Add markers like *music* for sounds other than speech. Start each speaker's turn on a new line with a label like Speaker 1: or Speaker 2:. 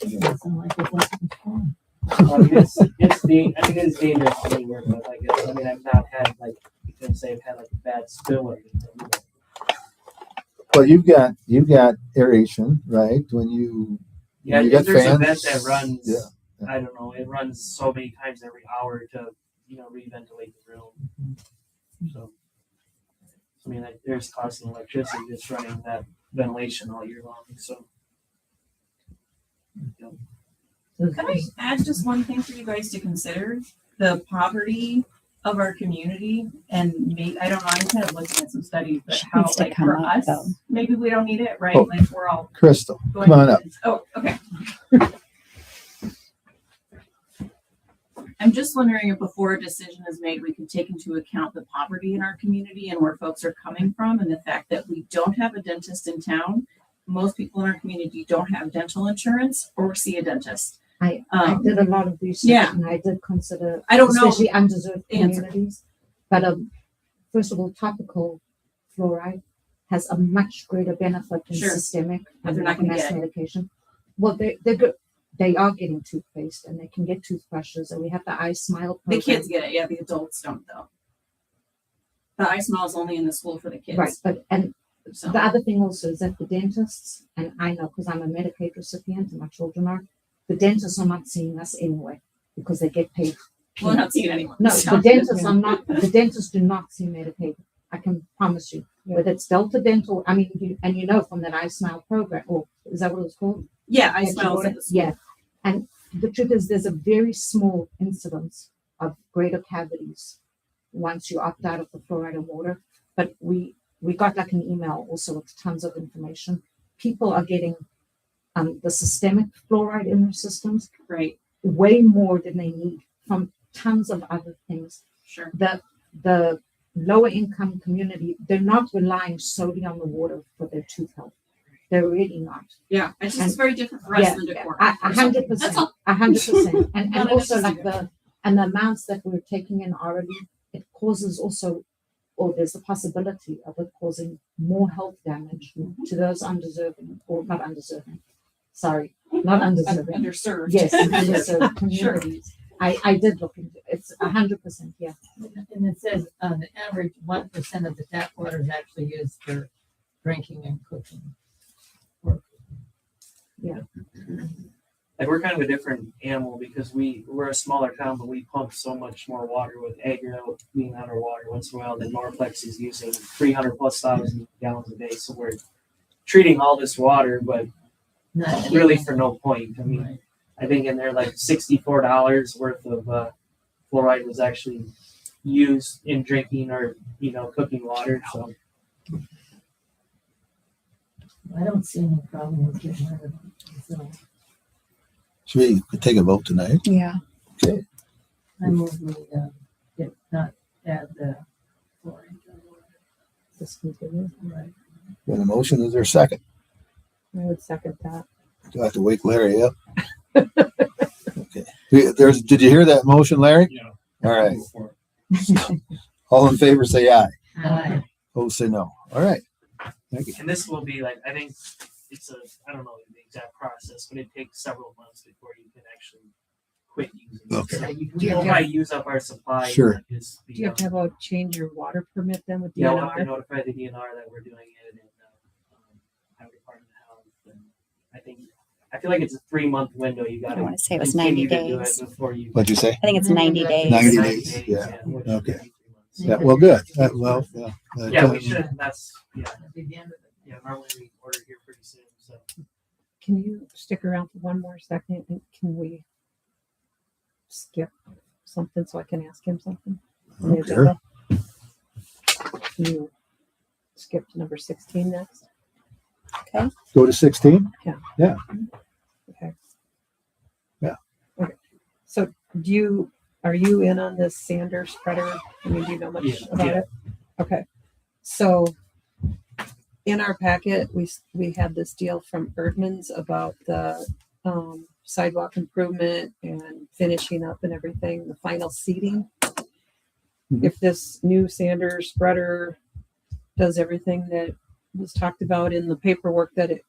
Speaker 1: It doesn't like it wasn't fun.
Speaker 2: I mean, it's, it's da- I mean, it is dangerous to be working with, I guess. I mean, I've not had, like, you can say I've had like a bad spill or anything. but
Speaker 3: Well, you've got you've got aeration, right? When you
Speaker 2: Yeah,
Speaker 3: You got
Speaker 2: there's a vent
Speaker 3: fans?
Speaker 2: that runs,
Speaker 3: Yeah, yeah.
Speaker 2: I don't know, it runs so many times every hour to, you know, reventilate the room. So, I mean, like, there's constant electricity that's running that ventilation all year long, so.
Speaker 4: Can I add just one thing for you guys to consider? The poverty of our community and maybe, I don't know, I'm kind of looking at some studies, but
Speaker 1: She
Speaker 4: how
Speaker 1: needs to
Speaker 4: like
Speaker 1: come
Speaker 4: for
Speaker 1: up,
Speaker 4: us,
Speaker 1: though.
Speaker 4: maybe we don't need it, right?
Speaker 3: Oh.
Speaker 4: Like we're all
Speaker 3: crystal.
Speaker 4: going.
Speaker 3: Come on up.
Speaker 4: Oh, okay. *laughs* I'm just wondering if before a decision is made, we can take into account the poverty in our community and where folks are coming from and the fact that we don't have a dentist in town. Most people in our community don't have dental insurance or see a dentist.
Speaker 1: I- I
Speaker 4: Um,
Speaker 1: did a lot of research
Speaker 4: Yeah.
Speaker 1: and I did consider,
Speaker 4: I don't know.
Speaker 1: especially undeserved
Speaker 4: Answer.
Speaker 1: communities. But um, first of all, topical fluoride has a much greater benefit than
Speaker 4: Sure.
Speaker 1: systemic
Speaker 4: But they're
Speaker 1: and
Speaker 4: not gonna
Speaker 1: organized
Speaker 4: get
Speaker 1: medication. Well, they they're good. They are getting toothpaste and they can get toothbrushes and we have the eye smile.
Speaker 4: The
Speaker 1: program.
Speaker 4: kids get it, yeah, the adults don't though. The eye smile is only in the school for the kids.
Speaker 1: Right, but and
Speaker 4: So,
Speaker 1: The other thing also is that the dentists, and I know because I'm a Medicaid recipient and my children are, the dentists are not seeing us anyway because they get paid.
Speaker 4: we're not seeing anyone. *laughs*
Speaker 1: No,
Speaker 4: so.
Speaker 1: the dentists are not, the dentists do not see Medicaid. I can promise you. Whether it's Delta Dental, I mean, you, and you know from that I Smile program, or is that what it's called?
Speaker 4: Yeah, eye
Speaker 1: That you
Speaker 4: smile is
Speaker 1: order-
Speaker 4: at the school.
Speaker 1: Yeah. And the truth is, there's a very small incidence of greater cavities once you opt out of the fluoride and water. But we we got like an email also with tons of information. People are getting um, the systemic fluoride in their systems
Speaker 4: Right,
Speaker 1: way more than they need from tons of other things
Speaker 4: sure.
Speaker 1: the the lower income community they're not relying solely on the water for their tooth health they're really not
Speaker 4: Yeah, it's just
Speaker 1: And-
Speaker 4: very different for us
Speaker 1: yeah,
Speaker 4: than the decor.
Speaker 1: a a hundred
Speaker 4: That's
Speaker 1: percent
Speaker 4: all.
Speaker 1: a
Speaker 4: *laughs*
Speaker 1: hundred percent and
Speaker 4: Not
Speaker 1: and also
Speaker 4: interested.
Speaker 1: like the and the amounts that we're taking in already it causes also or there's the possibility of it causing more health damage
Speaker 4: Mm-hmm.
Speaker 1: to those undeserving or not undeserving sorry not undeserving
Speaker 4: *laughs* Underserved.
Speaker 1: yes underserved
Speaker 4: Sure.
Speaker 1: communities i i did look into it's a hundred percent yeah
Speaker 5: And it says on the average, one percent of the tap water is actually used for drinking and cooking.
Speaker 2: Like, we're kind of a different animal because we, we're a smaller town, but we pump so much more water with Agro being underwater once in a while than Norplex is using 300 plus thousand gallons a day. So we're treating all this water, but
Speaker 5: Not
Speaker 2: really
Speaker 5: heating.
Speaker 2: for no point. I mean,
Speaker 5: Right.
Speaker 2: I think in there like sixty-four dollars worth of uh, fluoride was actually used in drinking or you know cooking water. So
Speaker 5: I don't see any problem with getting rid of it. So
Speaker 3: Should we take a vote tonight?
Speaker 6: Yeah.
Speaker 5: I move we, uh, get not add the fluorine. to the water. Right.
Speaker 3: Got a motion? Is there a second?
Speaker 6: I would second that.
Speaker 3: Do I have to wake Larry *laughs* up? okay. We- There's. Did you hear that motion, Larry?
Speaker 2: Yeah.
Speaker 3: All right. All in favor, say aye.
Speaker 5: Aye.
Speaker 3: Opposed, say no. All right.
Speaker 2: and this will be like I think it's a I don't know the exact process, but it takes several months before you can actually quit using.
Speaker 3: Okay.
Speaker 2: It. So we will probably use up our supply.
Speaker 3: Sure.
Speaker 2: and Just,
Speaker 6: Do you have to have a change your water permit then with
Speaker 2: yeah, we'll have to
Speaker 6: DNR?
Speaker 2: notify the DNR that we're doing it and uh, um, have department of health. And I think I feel like it's a three-month window. You got
Speaker 7: I
Speaker 2: to
Speaker 7: want to say it was
Speaker 2: continue
Speaker 7: 90
Speaker 2: to do it
Speaker 7: days.
Speaker 2: Before you.
Speaker 3: What'd you say?
Speaker 7: I think it's 90 days.
Speaker 3: 90
Speaker 2: 90
Speaker 3: days,
Speaker 2: days,
Speaker 3: yeah.
Speaker 2: which
Speaker 3: Okay.
Speaker 2: would be three months.
Speaker 3: Yeah. Well, good. Uh, well, yeah. Uh,
Speaker 2: Yeah, we should, that's, yeah,
Speaker 5: That'd be the end of it.
Speaker 2: yeah, normally we order here pretty soon, so.
Speaker 6: Can you stick around for one more second and can we skip something so I can ask him something?
Speaker 3: I don't care.
Speaker 6: Can you skip to number sixteen next?
Speaker 3: Go to sixteen.
Speaker 6: Okay.
Speaker 3: Yeah.
Speaker 6: Okay. So do you, are you in on this sander spreader? I mean, do you know
Speaker 2: Yeah,
Speaker 6: much about
Speaker 2: yeah.
Speaker 6: it? Okay. So in our packet, we, s- we had this deal from Erdman's about the um, sidewalk improvement and finishing up and everything, the final seating.
Speaker 3: Mhm.
Speaker 6: If this new sander spreader does everything that was talked about in the paperwork that it